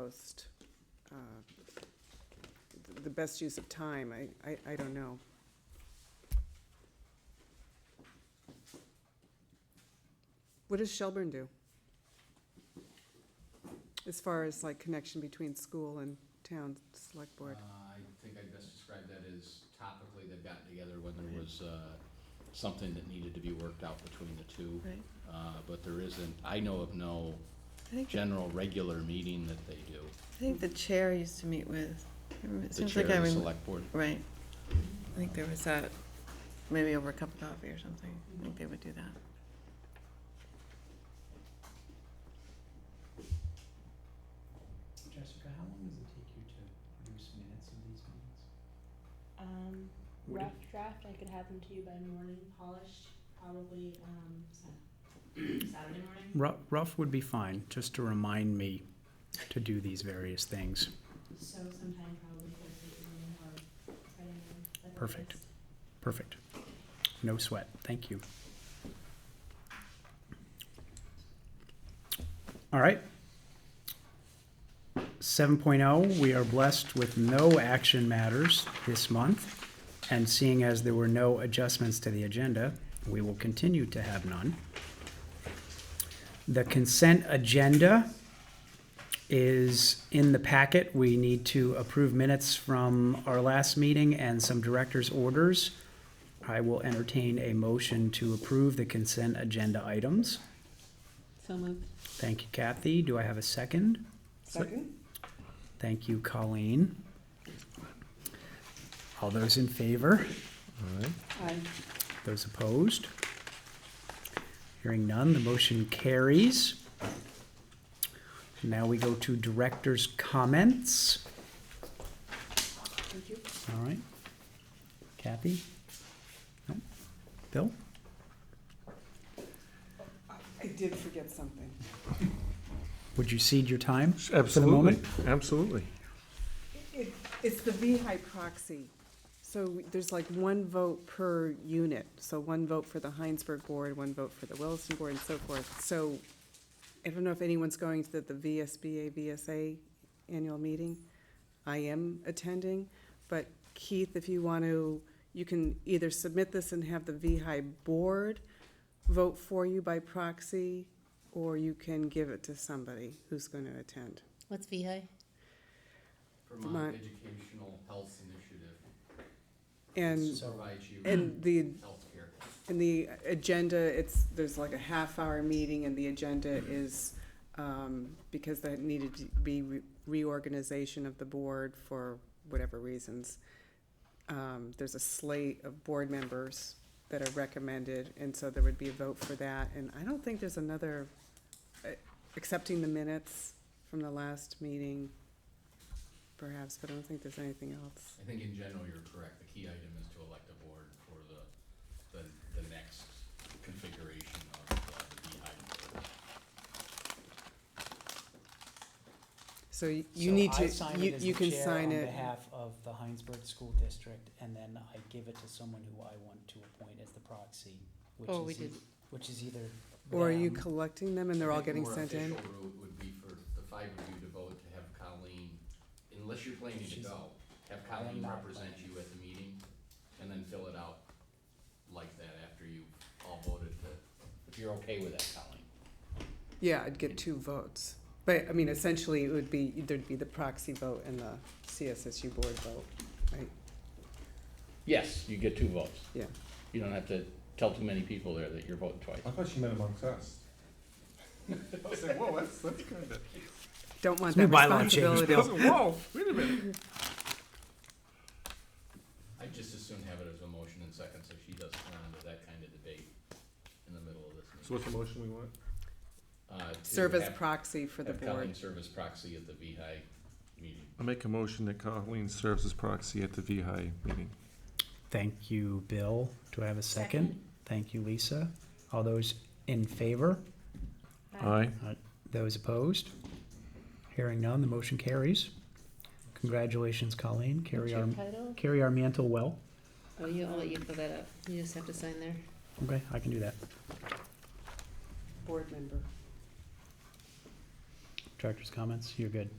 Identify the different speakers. Speaker 1: most, uh, the best use of time, I, I, I don't know. What does Shelburne do? As far as like connection between school and town select board?
Speaker 2: Uh, I think I'd best describe that as topically they've gotten together when there was, uh, something that needed to be worked out between the two.
Speaker 3: Right.
Speaker 2: Uh, but there isn't, I know of no
Speaker 3: I think, I
Speaker 2: general regular meeting that they do.
Speaker 3: think the chair used to meet with, I remember- it
Speaker 2: The
Speaker 3: seems
Speaker 2: chair
Speaker 3: like I
Speaker 2: of the
Speaker 3: remember,
Speaker 2: select board.
Speaker 3: right. I think there was that, maybe over a cup of coffee or something. I think they would do that.
Speaker 4: Jessica, how long does it take you to produce minutes of these meetings?
Speaker 5: Um,
Speaker 4: Would
Speaker 5: rough draft, I could have them to you by morning, polished, probably, um, Sa- Saturday morning.
Speaker 4: Rough, rough would be fine, just to remind me to do these various things.
Speaker 5: So sometime probably Thursday evening or Friday morning. like the
Speaker 4: Perfect.
Speaker 5: first.
Speaker 4: Perfect. No sweat. Thank you. All right. 7.0, we are blessed with no action matters this month. And seeing as there were no adjustments to the agenda, we will continue to have none. The consent agenda is in the packet. We need to approve minutes from our last meeting and some director's orders. I will entertain a motion to approve the consent agenda items.
Speaker 3: So moved.
Speaker 4: Thank you, Kathy. Do I have a second?
Speaker 1: Second?
Speaker 4: Thank you, Colleen. All those in favor?
Speaker 1: Aye.
Speaker 4: Those opposed? Hearing none, the motion carries. Now we go to director's comments.
Speaker 5: Thank you.
Speaker 4: All right. Kathy? No. Bill?
Speaker 1: I did forget something.
Speaker 4: Would you cede your time?
Speaker 6: Absolutely,
Speaker 4: moment?
Speaker 6: absolutely.
Speaker 1: It- It's the VHI proxy. So there's like one vote per unit. So one vote for the Heinsberg Board, one vote for the Williston Board, and so forth. So I don't know if anyone's going to the- the VSBA, VSA annual meeting. I am attending, but Keith, if you want to, you can either submit this and have the VHI Board vote for you by proxy, or you can give it to somebody who's going to attend.
Speaker 7: What's VHI?
Speaker 1: Vermont.
Speaker 2: Vermont Educational Health Initiative
Speaker 1: And
Speaker 2: provides you
Speaker 1: And the,
Speaker 2: healthcare.
Speaker 1: and the agenda, it's, there's like a half hour meeting and the agenda is, um, because that needed to be re- reorganization of the board for whatever reasons. Um, there's a slate of board members that are recommended, and so there would be a vote for that. And I don't think there's another, uh, accepting the minutes from the last meeting, perhaps, but I don't think there's anything else.
Speaker 2: I think in general, you're correct. The key item is to elect a board for the, the, the next configuration of uh, the VHI. board.
Speaker 1: So y- you need to, you, you can sign
Speaker 4: On
Speaker 1: it.
Speaker 4: behalf of the Heinsberg School District, and then I give it to someone who I want to appoint as the proxy, which
Speaker 7: Oh, we
Speaker 4: is,
Speaker 7: did.
Speaker 4: e- which is either
Speaker 1: Or are you
Speaker 4: them-
Speaker 1: collecting them and they're
Speaker 2: I
Speaker 1: all
Speaker 2: think
Speaker 1: getting sent
Speaker 2: The
Speaker 1: in?
Speaker 2: more official route would be for the five of you to vote to have Colleen, unless you're planning to
Speaker 4: She's-
Speaker 2: go, have Colleen
Speaker 4: not
Speaker 2: represent
Speaker 4: planning.
Speaker 2: you at the meeting, and then fill it out like that after you all voted to, if you're okay with that, Colleen.
Speaker 1: Yeah, I'd get two votes. But, I mean, essentially, it would be, there'd be the proxy vote and the CSSU board vote, right?
Speaker 2: Yes, you get two votes.
Speaker 1: Yeah.
Speaker 2: You don't have to tell too many people there that you're voting twice.
Speaker 6: I thought you meant amongst us. I was like, whoa, that's, that's kind of,
Speaker 1: Don't want
Speaker 4: Let's
Speaker 1: that
Speaker 4: move bylaw change,
Speaker 1: responsibility.
Speaker 4: Bill.
Speaker 6: whoa, wait a minute.
Speaker 2: I'd just as soon have it as a motion and second, so she doesn't run into that kind of debate in the middle of this
Speaker 6: So what's the motion we want?
Speaker 2: meeting.
Speaker 1: Serve as proxy for the
Speaker 2: Have Colleen
Speaker 1: board.
Speaker 2: serve as proxy at the VHI meeting.
Speaker 6: I make a motion that Colleen serves as proxy at the VHI meeting.
Speaker 4: Thank you, Bill. Do I have a second? Thank you, Lisa. All those in favor?
Speaker 6: Aye.
Speaker 4: Those opposed? Hearing none, the motion carries. Congratulations, Colleen. Carry our,
Speaker 7: What's your title?
Speaker 4: carry our mantle well.
Speaker 7: Oh, you, I'll let you fill that up. You just have to sign there.
Speaker 4: Okay, I can do that.
Speaker 1: Board member.
Speaker 4: Director's comments, you're good.